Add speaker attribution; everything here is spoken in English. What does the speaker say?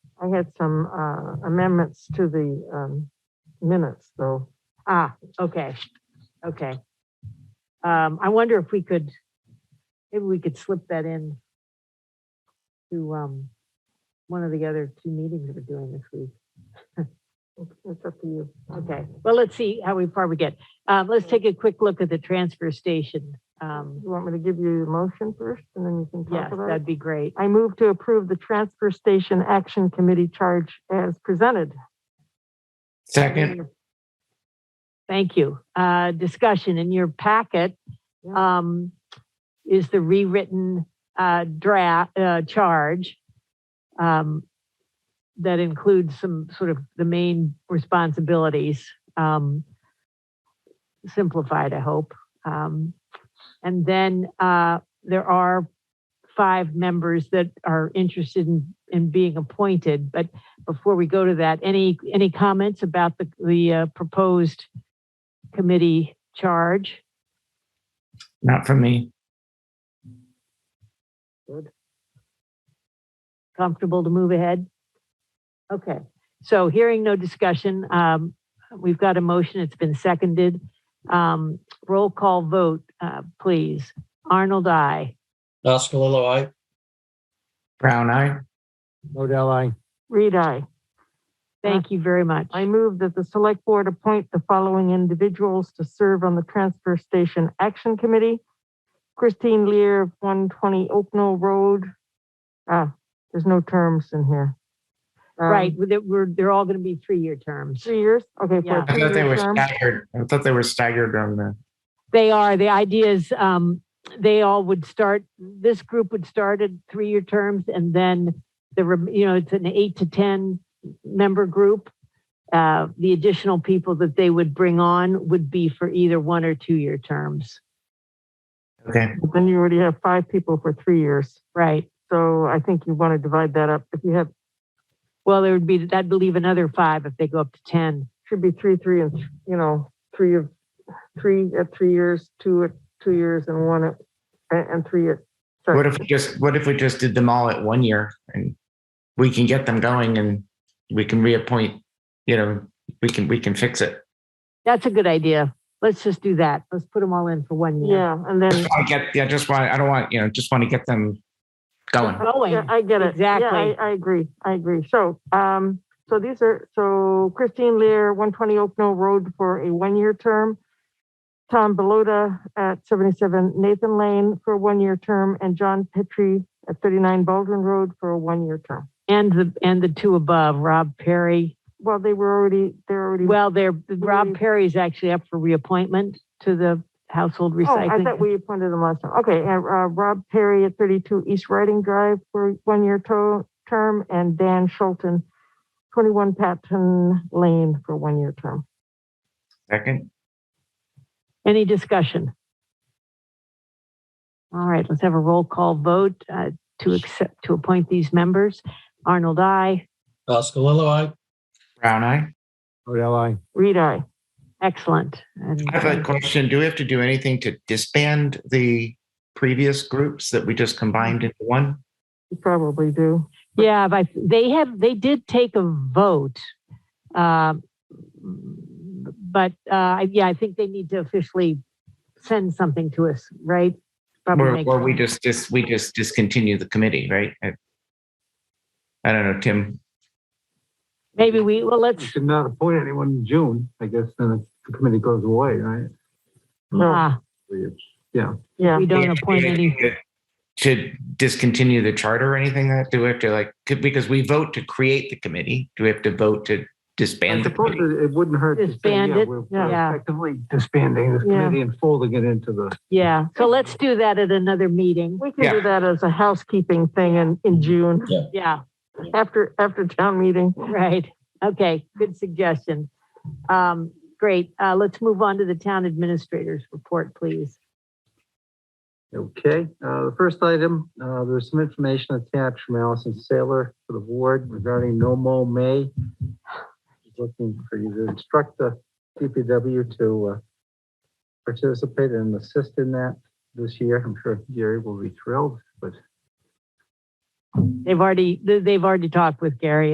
Speaker 1: I had some uh, amendments to the um, minutes, though. Ah, okay, okay. Um, I wonder if we could, maybe we could slip that in to um, one of the other two meetings we're doing this week. That's up to you. Okay, well, let's see how we far we get. Um, Let's take a quick look at the transfer station. Um,
Speaker 2: You want me to give you a motion first and then you can
Speaker 1: Yes,
Speaker 2: talk about it?
Speaker 1: that'd be great.
Speaker 2: I move to approve the Transfer Station Action Committee charge as presented.
Speaker 3: Second,
Speaker 1: Thank you. Uh, Discussion in your packet
Speaker 2: Yeah.
Speaker 1: um, is the rewritten uh, draft, uh, charge um, that includes some sort of the main responsibilities, um, simplified, I hope. Um, And then uh, there are five members that are interested in, in being appointed. But before we go to that, any, any comments about the, the uh, proposed committee charge?
Speaker 3: not from me.
Speaker 1: comfortable to move ahead? Okay, so hearing no discussion, um, we've got a motion, it's been seconded. Um, roll call vote, uh, please. Arnold, I.
Speaker 4: Oscalillo, aye.
Speaker 3: Brown eye.
Speaker 4: Modell, aye.
Speaker 2: Reed, I.
Speaker 1: Thank you very much.
Speaker 2: I move that the Select Board appoint the following individuals to serve on the Transfer Station Action Committee. Christine Lear, of 120 Oaknell Road. Ah, there's no terms in here. Um,
Speaker 1: Right, with it- we're, they're all gonna be three-year terms.
Speaker 2: Three years? Okay. for
Speaker 1: Yeah.
Speaker 2: a
Speaker 3: I thought they
Speaker 2: three-year
Speaker 3: were
Speaker 2: term.
Speaker 3: staggered. I thought they were staggered on the,
Speaker 1: They are, the idea is, um, they all would start, this group would start at three-year terms and then the, rem- you know, it's an eight to 10 member group. Uh, the additional people that they would bring on would be for either one or two-year terms.
Speaker 3: okay,
Speaker 2: But Then you already have five people for three years.
Speaker 1: Right.
Speaker 2: So I think you want to divide that up. If you have,
Speaker 1: Well, there would be, I'd believe another five if they go up to 10.
Speaker 2: should be three, three, and, th- you know, three of, three at three years, two at two years, and one at, and, and three at. sorry.
Speaker 3: what if we just, what if we just did them all at one year? And we can get them going and we can reappoint, you know, we can, we can fix it.
Speaker 1: That's a good idea. Let's just do that. Let's put them all in for one year.
Speaker 2: Yeah, and then,
Speaker 3: Just wanna get, yeah, just want, I don't want, you know, just want to get them going.
Speaker 2: yeah,
Speaker 1: Going.
Speaker 2: I get it. Yeah,
Speaker 1: Exactly.
Speaker 2: I, I agree, I agree. So, um, so these are, so Christine Lear, one twenty Oak Knoll Road for a one-year term. Tom Belota at seventy-seven Nathan Lane for a one-year term, and John Petrie at thirty-nine Baldwin Road for a one-year term.
Speaker 1: And the, and the two above, Rob Perry.
Speaker 2: Well, they were already, they're already.
Speaker 1: Well, they're, Rob
Speaker 2: We-
Speaker 1: Perry's actually up for reappointment to the Household
Speaker 2: Oh, I thought
Speaker 1: Recycling.
Speaker 2: we appointed them last time. Okay, and, uh, Rob Perry at thirty-two East Riding Drive for one-year to- term, and Dan Schulten, twenty-one Patton Lane for one-year term.
Speaker 3: Second,
Speaker 1: Any discussion? All right, let's have a roll call vote uh, to accept, to appoint these members. Arnold, I.
Speaker 4: Oscalillo, aye.
Speaker 3: brown eye.
Speaker 4: Modell, aye.
Speaker 2: Reed, I.
Speaker 1: Excellent. And
Speaker 3: I have a question. Do we have to do anything to disband the previous groups that we just combined into one?
Speaker 2: You probably do.
Speaker 1: Yeah, but they have, they did take a vote. um, But, uh, yeah, I think they need to officially send something to us, right? Probably
Speaker 3: Or,
Speaker 1: make-
Speaker 3: or we just, just, we just discontinue the committee, right? I- I don't know, Tim.
Speaker 1: Maybe we, well,
Speaker 5: You
Speaker 1: let's,
Speaker 5: should not appoint anyone in June, I guess, then the committee goes away, right?
Speaker 2: No,
Speaker 1: ah,
Speaker 2: yeah,
Speaker 1: we don't appoint any,
Speaker 3: To discontinue the charter or anything that, do we have to like, could- because we vote to create the committee, do we have to vote to
Speaker 5: I
Speaker 3: disband the
Speaker 5: suppose
Speaker 3: committee?
Speaker 5: it it wouldn't hurt to say,
Speaker 1: Disband
Speaker 5: yeah,
Speaker 1: it,
Speaker 5: we're
Speaker 1: yeah.
Speaker 5: we're effectively disbanding this
Speaker 2: Yeah.
Speaker 5: committee and folding it into the,
Speaker 1: yeah. So let's do that at another meeting.
Speaker 2: we can do that as a housekeeping thing in, in June,
Speaker 1: Mm-hmm. Yeah,
Speaker 2: after, after town meeting.
Speaker 1: right. Okay, good suggestion. Um, Great. Uh, Let's move on to the town administrator's report, please.
Speaker 5: okay. Uh, the first item, uh, there's some information attached from Allison Saylor for the board regarding no mow May. She's Looking for you to instruct the DPW to, uh, participate and assist in that this year. I'm sure Gary will be thrilled, but
Speaker 1: They've already, they've already talked with Gary